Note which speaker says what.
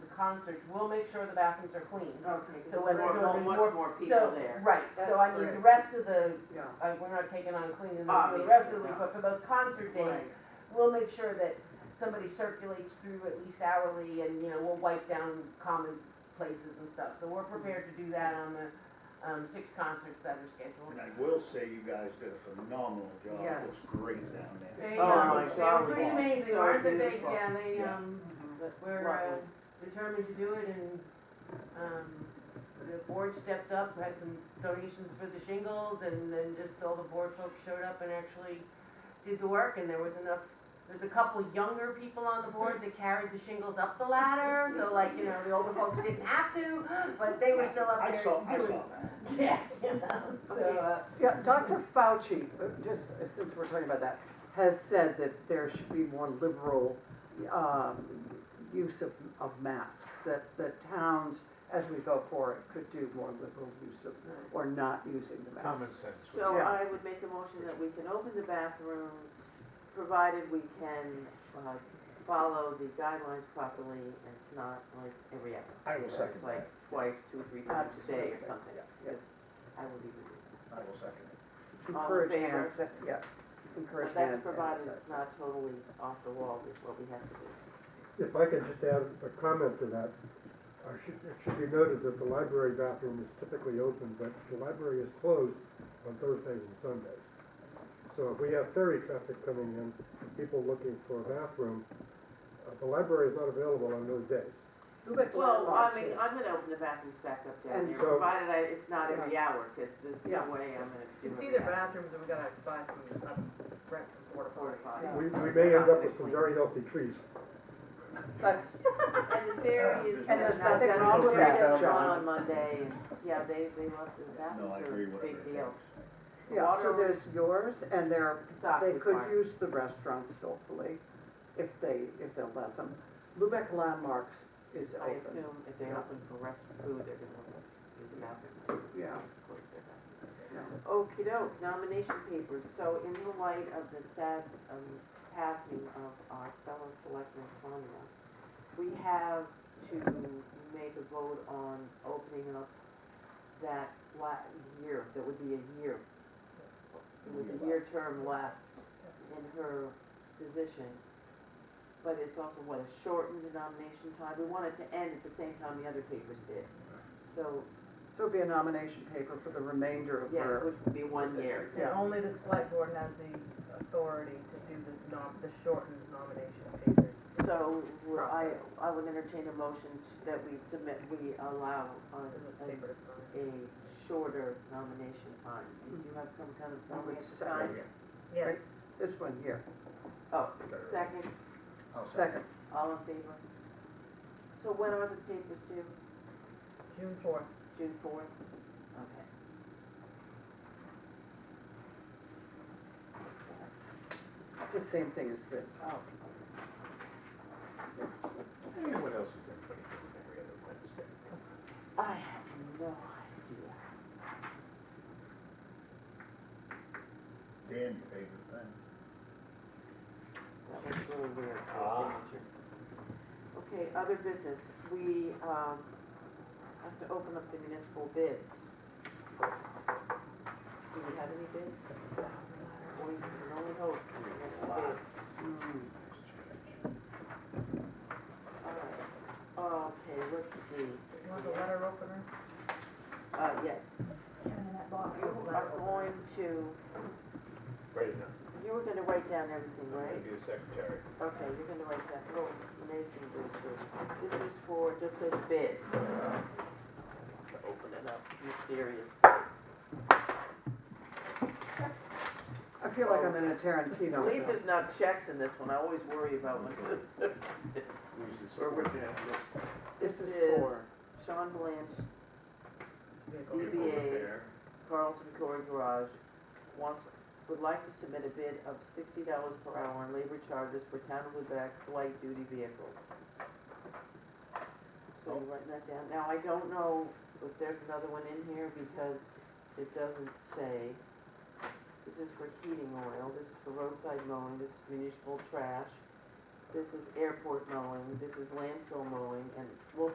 Speaker 1: concerts, we'll make sure the bathrooms are clean.
Speaker 2: Okay,
Speaker 1: So
Speaker 2: so
Speaker 1: when
Speaker 2: there's
Speaker 1: there's only
Speaker 2: only much
Speaker 1: more-
Speaker 2: more
Speaker 1: So,
Speaker 2: people there.
Speaker 1: Right, so
Speaker 2: That's
Speaker 1: I mean, the
Speaker 2: correct.
Speaker 1: rest of the,
Speaker 2: Yeah.
Speaker 1: uh, we're not taking on cleaning the- the rest of the week,
Speaker 2: Obviously not.
Speaker 1: but for those concert days,
Speaker 2: Right.
Speaker 1: we'll make sure that somebody circulates through at least hourly and, you know, we'll wipe down common places and stuff. So we're prepared to do that on the, um, six concerts that are scheduled.
Speaker 3: And I will say you guys did a phenomenal job. It was
Speaker 2: Yes.
Speaker 3: great down there.
Speaker 1: They,
Speaker 2: Oh
Speaker 1: um,
Speaker 2: my
Speaker 1: they
Speaker 2: God,
Speaker 1: were pretty
Speaker 2: yes.
Speaker 1: amazing,
Speaker 2: So
Speaker 1: aren't they? They,
Speaker 2: beautiful.
Speaker 1: yeah, they,
Speaker 3: Yeah.
Speaker 1: um,
Speaker 2: That's
Speaker 1: were uh,
Speaker 2: lovely.
Speaker 1: determined to do it and, um, the board stepped up, had some donations for the shingles and then just all the board folks showed up and actually did the work and there was enough, there's a couple younger people on the board that carried the shingles up the ladder, so like, you know, the older folks didn't have to, but they were still up
Speaker 3: I
Speaker 1: there.
Speaker 3: saw, I
Speaker 1: doing-
Speaker 3: saw that.
Speaker 1: Yeah, you know, so, uh,
Speaker 2: Yeah, Dr. Fauci, uh, just uh, since we're talking about that, has said that there should be more liberal um, use of, of masks, that, that towns, as we go forward, could do more liberal use of, or not using the
Speaker 4: Common
Speaker 2: masks.
Speaker 4: sense. would
Speaker 5: So
Speaker 4: be-
Speaker 5: I would make a motion that we can open the bathrooms, provided we can, uh, follow the guidelines properly and it's not like every hour.
Speaker 3: I will second
Speaker 5: It's
Speaker 3: that.
Speaker 5: like twice, two, three times a day or
Speaker 2: Absolutely.
Speaker 5: something.
Speaker 2: Yeah, yeah.
Speaker 5: Yes, I will even do that.
Speaker 3: I will second it.
Speaker 5: All in
Speaker 2: Encourage
Speaker 5: favor?
Speaker 2: hand, sa- yes, encourage
Speaker 5: But
Speaker 2: hand.
Speaker 5: that's provided
Speaker 2: sanitizer.
Speaker 5: it's not totally off the wall with what we have to do.
Speaker 6: If I could just add a comment to that, I should, it should be noted that the library bathroom is typically open, but the library is closed on Thursdays and Sundays. So if we have ferry traffic coming in, people looking for a bathroom, uh, the library is not available on those days.
Speaker 2: Who but the
Speaker 5: Well, I
Speaker 2: landlords
Speaker 5: mean,
Speaker 2: is.
Speaker 5: I'm gonna open the bathrooms back up down
Speaker 2: And
Speaker 5: there,
Speaker 6: so-
Speaker 5: provided I, it's not every hour, cause there's no
Speaker 2: Yeah.
Speaker 5: way I'm gonna do
Speaker 7: You
Speaker 5: it.
Speaker 7: can see their bathrooms, and we gotta buy some, uh, rent some porta potties.
Speaker 5: Fortified.
Speaker 6: We, we may end up with some very healthy trees.
Speaker 2: That's,
Speaker 5: And the ferry is.
Speaker 2: And there's
Speaker 5: not-
Speaker 2: nothing
Speaker 5: that's
Speaker 2: wrong with
Speaker 5: the ferry
Speaker 2: that,
Speaker 5: that's
Speaker 2: John.
Speaker 5: gone On Monday, and, yeah, they, they left the
Speaker 3: No, I
Speaker 5: bathrooms
Speaker 3: agree
Speaker 5: are a
Speaker 3: with
Speaker 5: big
Speaker 3: everything.
Speaker 5: deal.
Speaker 2: yeah, so
Speaker 5: Water-
Speaker 2: there's yours, and there are
Speaker 5: Stop
Speaker 2: They could
Speaker 5: required.
Speaker 2: use the restaurants hopefully, if they, if they'll let them. Lubec Landmarks is
Speaker 5: I
Speaker 2: open,
Speaker 5: assume if they're open for rest food, they're gonna open, use the bathroom.
Speaker 2: yeah. yeah.
Speaker 5: okey doke, nomination papers, so in the light of the sad, um, passing of our fellow selectman Sonia, we have to make a vote on opening up that la, year, that would be a year. It was a year term left in her position, but it's also what, a shortened nomination time, we want it to end at the same time the other papers did. So,
Speaker 2: So it'd be a nomination paper for the remainder of
Speaker 5: yes,
Speaker 2: her.
Speaker 5: which would be one year.
Speaker 7: And only the select board has the authority to do the nom, the shortened nomination papers.
Speaker 5: So we're- I,
Speaker 7: Process.
Speaker 5: I would entertain a motion t- that we submit, we allow a,
Speaker 7: The
Speaker 5: a-
Speaker 7: papers on it.
Speaker 5: a shorter nomination time. Did you have some kind of
Speaker 2: I would
Speaker 5: nomination
Speaker 2: second
Speaker 5: time?
Speaker 7: Yes.
Speaker 2: This one here,
Speaker 5: Oh, second,
Speaker 3: I'll
Speaker 2: second.
Speaker 5: all in favor? So when are the papers due?
Speaker 7: June fourth.
Speaker 5: June fourth? Okay.
Speaker 2: It's the same thing as this.
Speaker 5: Oh,
Speaker 4: Yeah, What else is anybody doing every other Wednesday?
Speaker 5: I have no idea.
Speaker 3: Dan, your favorite thing.
Speaker 5: That was really weird, those
Speaker 4: Ah.
Speaker 5: signatures. Okay, other business, we, um, have to open up the municipal bids. Do we have any bids? We can only hope for the municipal bids.
Speaker 2: Mm.
Speaker 5: All right. Okay, let's see,
Speaker 7: You want the letter opener?
Speaker 5: uh, yes,
Speaker 7: in that box.
Speaker 5: you are going to,
Speaker 4: Right now.
Speaker 5: you were gonna write down everything,
Speaker 4: I'm gonna
Speaker 5: right?
Speaker 4: be a secretary.
Speaker 5: Okay, you're gonna write that, oh, Renee's gonna do it too. This is for, just says bid. Open it up, it's mysterious.
Speaker 2: I feel like I'm in a Tarantino
Speaker 5: At least
Speaker 2: film.
Speaker 5: there's not checks in this one, I always worry about when,
Speaker 4: Who's this?
Speaker 5: Or would-
Speaker 2: This
Speaker 5: this
Speaker 2: is
Speaker 5: is-
Speaker 2: for,
Speaker 5: Sean Blanch,
Speaker 4: People there.
Speaker 5: Carlton Corey Garage, wants, would like to submit a bid of sixty dollars per hour on labor charges for town of Lubec light duty vehicles. So you write that down, now I don't know if there's another one in here because it doesn't say. This is for heating oil, this is for roadside mowing, this is municipal trash, this is airport mowing, this is landfill mowing, and we'll